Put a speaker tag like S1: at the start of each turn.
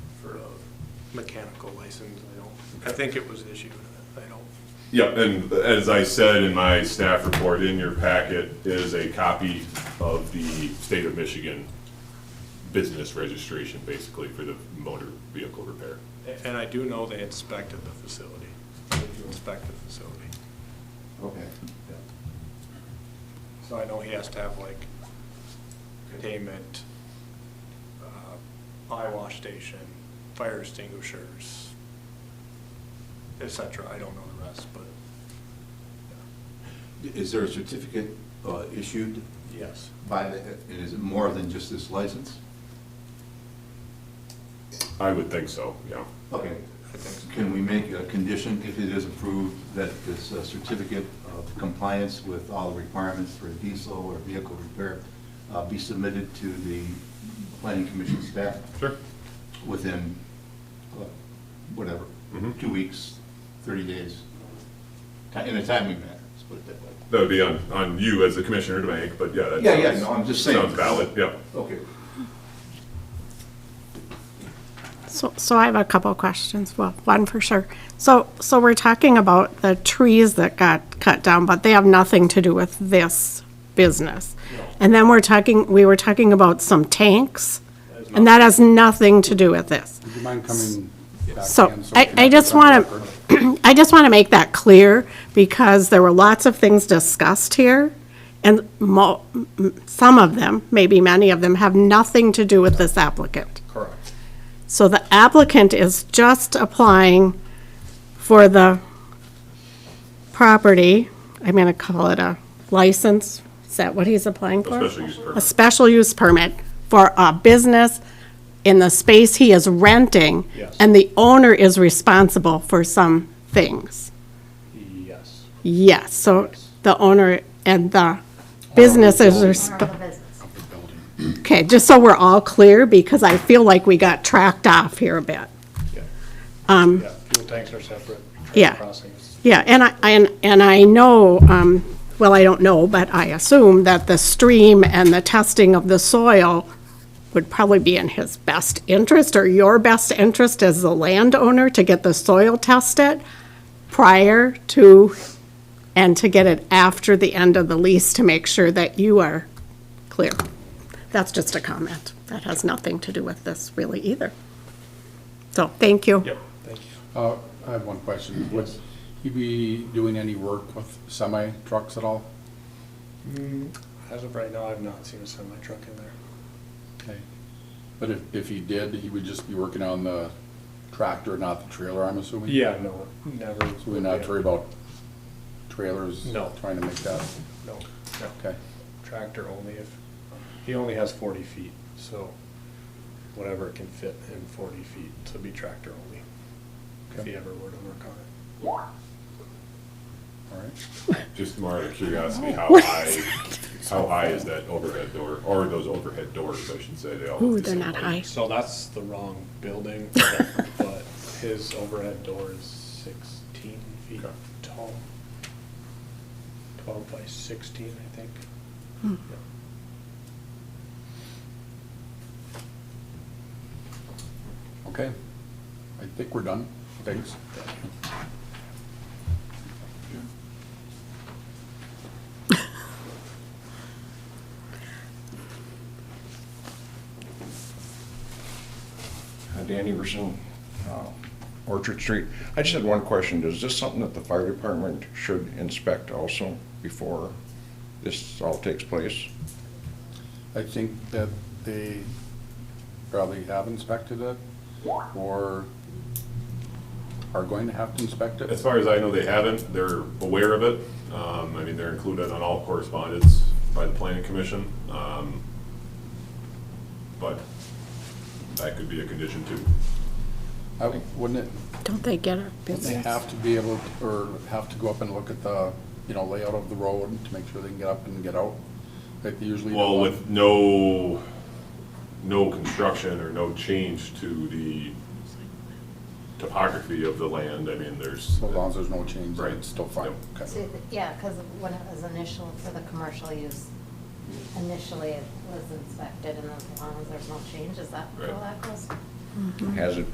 S1: mechanical license, I don't, I think it was issued, I don't.
S2: Yep, and as I said in my staff report, in your packet is a copy of the state of Michigan business registration, basically, for the motor vehicle repair.
S1: A- And I do know they inspected the facility, inspected the facility.
S3: Okay.
S1: So I know he has to have like containment, uh, eye wash station, fire extinguishers, et cetera. I don't know the rest, but
S3: Is there a certificate uh, issued
S1: yes.
S3: by the, and is it more than just this license?
S2: I would think so, yeah.
S3: Okay.
S1: I think
S3: Can we make a condition, if it is approved, that this uh, certificate of compliance with all the requirements for diesel or vehicle repair uh, be submitted to the planning commission staff
S2: Sure.
S3: within, uh, whatever,
S2: Mhm.
S3: two weeks, 30 days, ti- in a timely manner, let's put it that way.
S2: That would be on, on you as the commissioner to make, but yeah, that
S3: Yeah, yeah,
S2: sounds-
S3: no, I'm just saying.
S2: Sounds valid, yeah.
S3: Okay.
S4: So, so I have a couple of questions. Well, one for sure. So, so we're talking about the trees that got cut down, but they have nothing to do with this business. And then we're talking, we were talking about some tanks, and that has nothing to do with this.
S5: Would you mind coming back?
S4: So,
S5: again
S4: I-
S5: we can
S4: I
S5: have
S4: just
S5: this on
S4: wanna-
S5: record?
S4: I just want to make that clear because there were lots of things discussed here, and mo, m- some of them, maybe many of them, have nothing to do with this applicant.
S1: Correct.
S4: So the applicant is just applying for the property, I'm going to call it a license, is that what he's applying for?
S2: A special use permit.
S4: A special use permit for a business in the space he is renting.
S1: Yes.
S4: And the owner is responsible for some things.
S1: Yes.
S4: Yes, so the owner and the business is
S6: Owner of
S4: responsible.
S6: the business.
S4: Okay, just so we're all clear, because I feel like we got tracked off here a bit.
S1: Yeah, fuel tanks are separate. train
S4: Yeah.
S1: Crossings.
S4: Yeah, and I, and, and I know, um, well, I don't know, but I assume that the stream and the testing of the soil would probably be in his best interest or your best interest as the landowner to get the soil tested prior to, and to get it after the end of the lease to make sure that you are clear. That's just a comment. That has nothing to do with this really either. So, thank you.
S1: Yep, thank you.
S5: Uh, I have one question.
S1: Mm-hmm.
S5: Would you be doing any work with semi trucks at all?
S1: As of right now, I've not seen a semi truck in there.
S5: Okay. But if, if he did, he would just be working on the tractor, not the trailer, I'm assuming?
S1: Yeah, no, never.
S5: So we're not worried about trailers?
S1: No.
S5: Trying to make that,
S1: No, no.
S5: okay.
S1: tractor only if, he only has forty feet, so whatever can fit in forty feet, so it'd be tractor only. If he ever were to work on it.
S5: All right.
S2: Just more out of curiosity, how high, how high is that overhead door, or those overhead doors, I should say, they all. look
S4: Ooh,
S2: the
S4: they're
S2: same
S4: not
S2: height.
S4: high.
S1: So that's the wrong building, but his overhead door is sixteen feet
S2: Okay.
S1: tall. Twelve by sixteen, I think. Yeah.
S5: Okay. I think we're done. Thanks.
S7: Uh, Dan Everson, uh, Orchard Street. I just had one question. Is this something that the fire department should inspect also before this all takes place?
S5: I think that they probably have inspected it or are going to have to inspect
S2: As
S5: it.
S2: far as I know, they haven't. They're aware of it. Um, I mean, they're included on all correspondence by the planning commission. Um, But that could be a condition too.
S5: I- Wouldn't it,
S4: Don't they get a
S5: wouldn't they
S4: business?
S5: have to be able, to- or have to go up and look at the, you know, layout of the road to make sure they can get up and get out? Like they usually. do
S2: Well,
S5: on-
S2: with no, no construction or no change to the topography of the land, I mean, there's,
S5: So long as there's no change, then
S2: Right.
S5: it's still fine.
S2: Yep.
S5: Okay.
S6: So, Yeah, because when it was initial, for the commercial use, initially it was inspected, and as long as there's no changes, that,
S2: Right.
S6: well, that goes.
S7: Has it